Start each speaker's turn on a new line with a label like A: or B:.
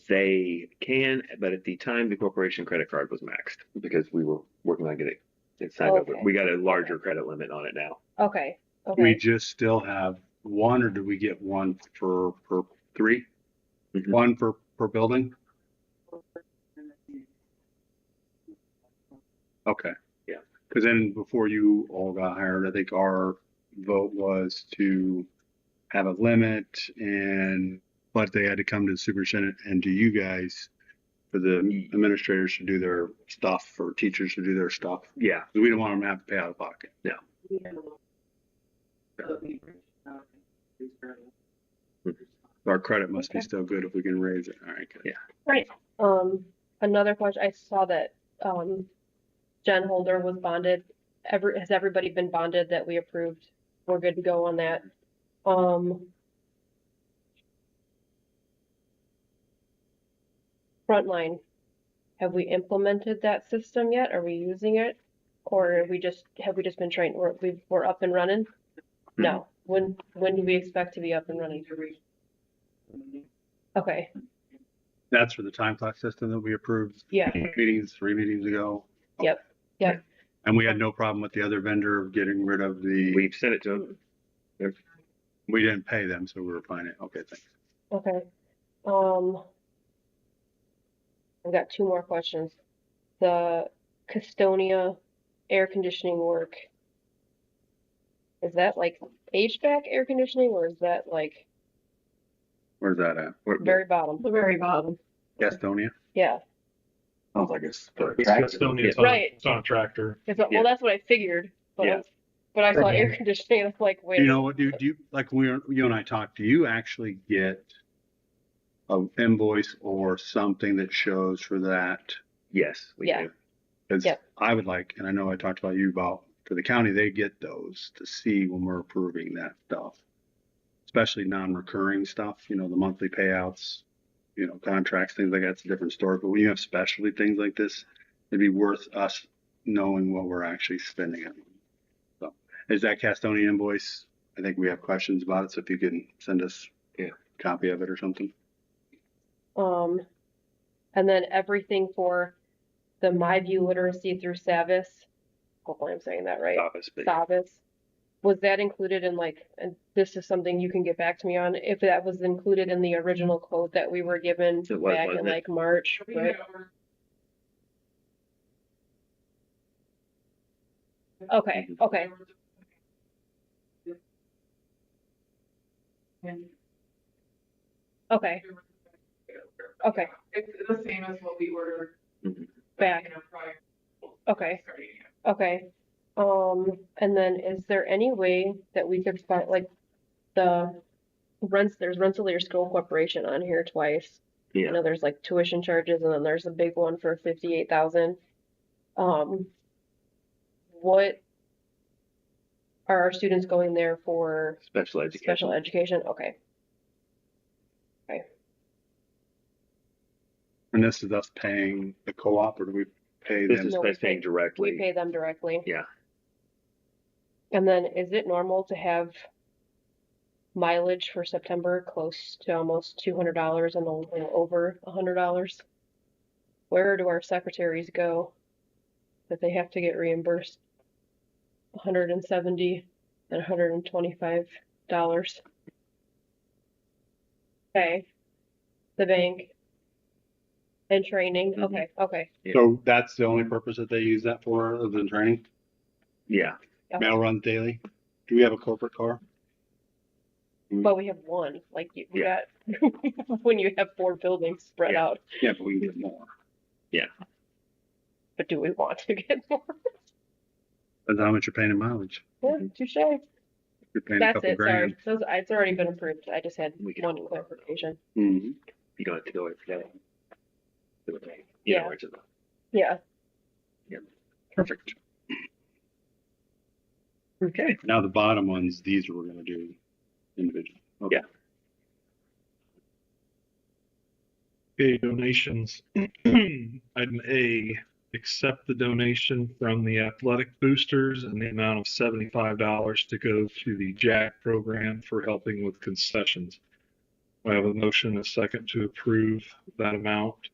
A: They can, but at the time, the corporation credit card was maxed because we were working on getting it signed up.
B: Okay.
A: We got a larger credit limit on it now.
B: Okay,
C: Do we
B: okay.
C: just still have one, or do we get one for, per
A: Three?
C: one for, per building? Okay.
A: Yeah.
C: Because then before you all got hired, I think our vote was to have a limit and, but they had to come to the superintendent and to you guys for the administrators to do their stuff or teachers to do their stuff.
A: Yeah.
C: 'Cause We don't want them to have to pay out of pocket. Our credit must be
B: Okay.
C: still good if we can raise it. All right. good.
A: Yeah.
B: Um, another question, I saw that, um, Jen Holder was bonded. Ever, has everybody been bonded that we approved? We're good to go on that. Um. Frontline, have we implemented that system yet? Are we using it? Or are we just, have we just been trained, we're, we- we're up and running? No, when, when do we expect to be up and running? Okay,
C: That's for the time clock system that we approved
B: yeah,
C: two meetings, three meetings ago.
B: Yep, yep.
C: And we had no problem with the other vendor of getting rid of the,
A: We've sent it to them.
C: we didn't pay them, so we were fine. Okay, thanks.
B: okay. Um, I've got two more questions. The Custonia air conditioning work. Is that like HVAC air conditioning or is that like
C: Where's that at?
A: We're-
B: very bottom?
D: The very bottom.
C: Gastonia?
B: Yeah,
C: Sounds like it's.
A: It's
E: Gastonia, it's on,
B: Right.
E: it's on a tractor.
B: 'cause that-
A: Yeah.
B: well, that's what I figured, but
A: Yeah.
B: I- but I saw air conditioning, and I'm like, wait.
C: You know what, dude, do you, like, we, were- you and I talked, do you actually get a invoice or something that shows for that?
A: Yes. we
B: Yeah.
A: do.
C: Cause
B: Yep.
C: I would like, and I know I talked about you about, for the county, they get those to see when we're approving that stuff. Especially non-recurring stuff, you know, the monthly payouts, you know, contracts, things like that's a different story, but when you have specialty things like this, it'd be worth us knowing what we're actually spending it. on. So, is that Castoni invoice? I think we have questions about it, so if you can send us
A: Yeah.
C: a copy of it or something.
B: Um, and then everything for the MyView literacy through Savvis. Hopefully I'm saying that right.
A: Office, but
B: Savvis. Was that included in like, and this is something you can get back to me on, if that was included in the original quote that we were given
A: It was,
B: back in
A: wasn't it?
B: like March, right? Okay, okay, okay, okay,
D: It's the same as what we ordered.
A: Mhm.
B: Back.
D: you know, prior to
B: okay,
D: starting it.
B: okay. Um, and then is there any way that we could find like the rents, there's Rensselaer School Corporation on here twice. I
A: Yeah.
B: know there's like tuition charges and then there's a big one for fifty-eight thousand. Um, what are our students going there for
A: Special education.
B: special education? Okay,
C: And this is us paying the co-op, or do we pay
A: This
C: them?
A: is
B: No, we
A: us paying
B: pay- we
A: directly.
B: pay them directly.
A: Yeah.
B: And then is it normal to have mileage for September close to almost two hundred dollars and a little over a hundred dollars? Where do our secretaries go that they have to get reimbursed hundred and seventy and hundred and twenty-five dollars? Okay, the bank and training,
A: Mhm.
B: okay, okay,
A: Yeah.
C: So that's the only purpose that they use that for, other than training?
A: Yeah.
C: Mail runs daily? Do we have a corporate car?
B: but we have one, like you, we
A: Yeah.
B: got, when you have four buildings spread
A: Yeah.
B: out.
C: Yeah, but we can get more.
B: but do we want to get more?
C: Depends on how much you're paying in mileage.
B: Yeah,
A: Mhm.
B: touche.
C: If You're paying a
B: That's
C: couple
B: it. Sorry,
C: grand.
B: those it's already been approved. I just had
A: We can-
B: one clarification.
C: Mhm.
A: You don't have to go every day. You know,
B: Yeah.
A: where it's at.
B: Yeah.
C: Perfect.
A: Okay.
C: Now the bottom ones, these we're gonna do individual. Okay.
A: Yeah.
E: Okay, donations. Item A, accept the donation from the athletic boosters and the amount of seventy-five dollars to go to the JAG program for helping with concessions. I have a motion, a second to approve that amount.